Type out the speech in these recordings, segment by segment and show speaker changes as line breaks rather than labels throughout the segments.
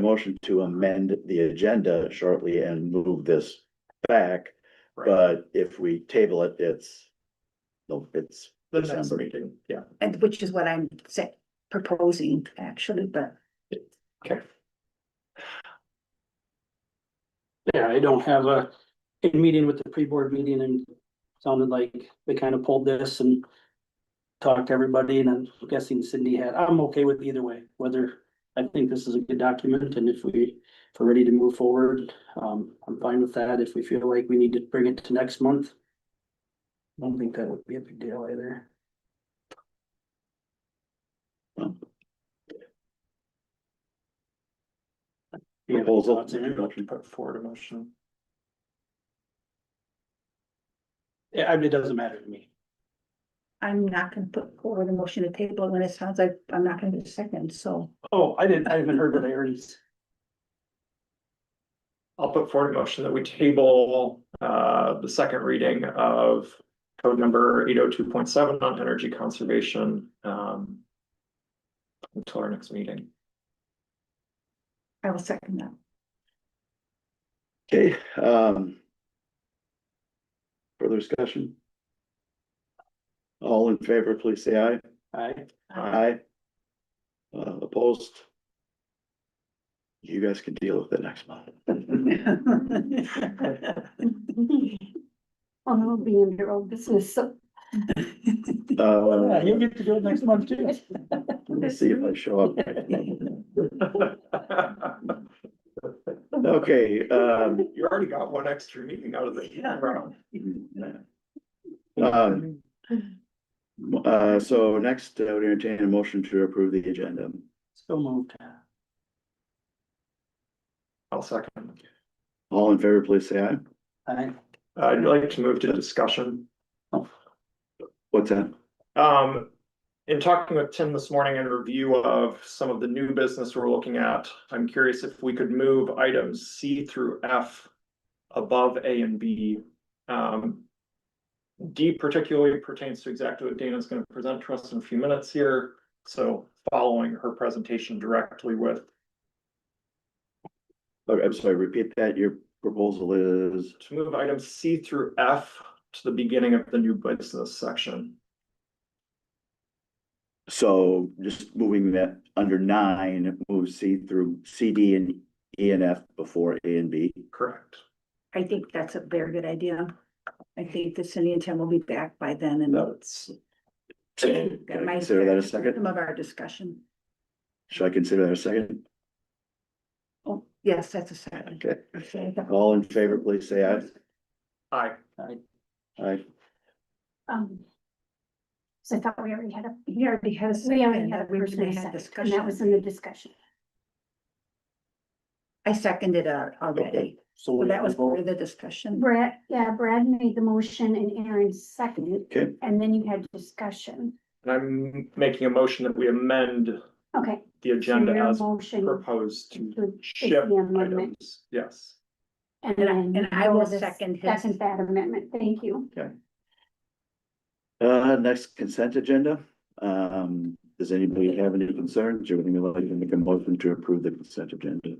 motion to amend the agenda shortly and move this back. But if we table it, it's, no, it's,
The
next
meeting, yeah.
and which is what I'm sa- proposing actually, but
Yeah, I don't have a, a meeting with the pre-board meeting and sounded like they kind of pulled this and talked to everybody and I'm guessing Cindy had, I'm okay with either way, whether I think this is a good document and if we, if we're ready to move forward, um, I'm fine with that. If we feel like we need to bring it to next month. I Don't think that would be a big deal either. Do you have any
Proposal.
thoughts, Aaron?
Motion put forward a motion.
Yeah, I mean, it doesn't matter to me.
I'm not gonna put forward a motion to table when it sounds like I'm not gonna do second, so.
Oh, I didn't, I haven't heard that I already.
I'll put forward a motion that we table uh the second reading of code number eight oh two point seven on energy conservation um. Until our next meeting.
I will second that.
okay, um. Further discussion? All in favor, please say aye.
I,
Aye. Uh, opposed? You guys can deal with it next month. Uh,
Well, it'll be in your own business, so
Uh,
Oh, you'll get to do it next month too.
let's see if I show up. Okay, um,
You already got one extra meeting out of the.
Um, uh, so next, I would entertain a motion to approve the agenda.
So moved.
I'll second.
All in favor, please say aye.
I,
Uh, I'd like to move to discussion.
What's that?
Um, in talking with Tim this morning in review of some of the new business we're looking at, I'm curious if we could move items C through F above A and B. Um, D particularly pertains to exactly what Dana's gonna present to us in a few minutes here, so following her presentation directly with
Oh, I'm sorry, repeat that. Your proposal is,
to move items C through F to the beginning of the new business section.
so just moving that under nine, move C through C, D and E and F before A and B.
Correct.
I think that's a very good idea. I think that Cindy and Tim will be back by then and.
That's. Can
That
I
might
consider that a
Some
second?
of our discussion.
Should I consider that a second?
Oh, yes, that's a second.
Okay, all in favor, please say aye.
Aye.
I,
Aye.
um. So I thought we already had a,
We already had a.
we already
second,
had a
we already
person
had
second, and that
discussion.
was in the discussion.
I seconded it already.
so
So
we
that
have
was
to
part of
vote.
the discussion.
Brad, yeah, Brad made the motion and Aaron seconded,
Okay,
and then you had discussion.
And I'm making a motion that we amend
Okay.
the
so
agenda
your
as
Motion.
proposed to
to- is
shift
the amendment,
items, yes.
And
And I-
then.
and I will
Lois
second his-
Second that amendment, thank you.
uh, next consent agenda. Um, does anybody have any concerns or would you like to make a motion to approve the consent agenda?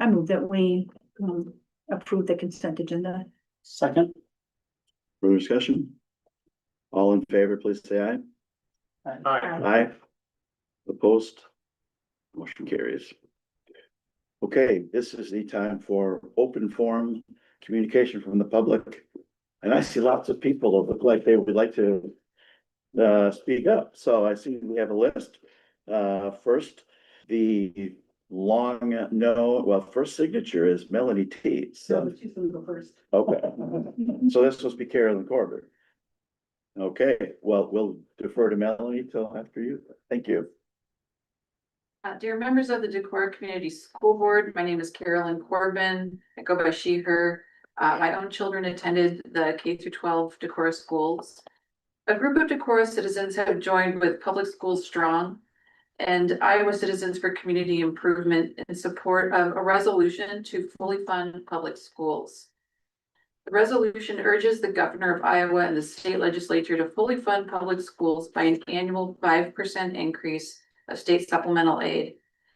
I move that we um approve the consent agenda.
Second,
Further discussion? All in favor, please say aye.
Aye.
Aye. Opposed? Motion carries. Okay, this is the time for open forum communication from the public. And I see lots of people that look like they would like to uh, speak up, so I see we have a list. Uh, first, the long, no, well, first signature is Melanie T, so,
she's gonna go first.
okay. So this must be Carolyn Corbett. Okay, well, we'll defer to Melanie till after you. Thank you.
Uh, dear members of the Decorah Community School Board, my name is Carolyn Corbin. I go by she, her. Uh, my own children attended the K through twelve Decorah schools. A group of Decorah citizens have joined with Public Schools Strong and Iowa Citizens for Community Improvement in support of a resolution to fully fund public schools. The resolution urges the governor of Iowa and the state legislature to fully fund public schools by an annual five percent increase of state supplemental aid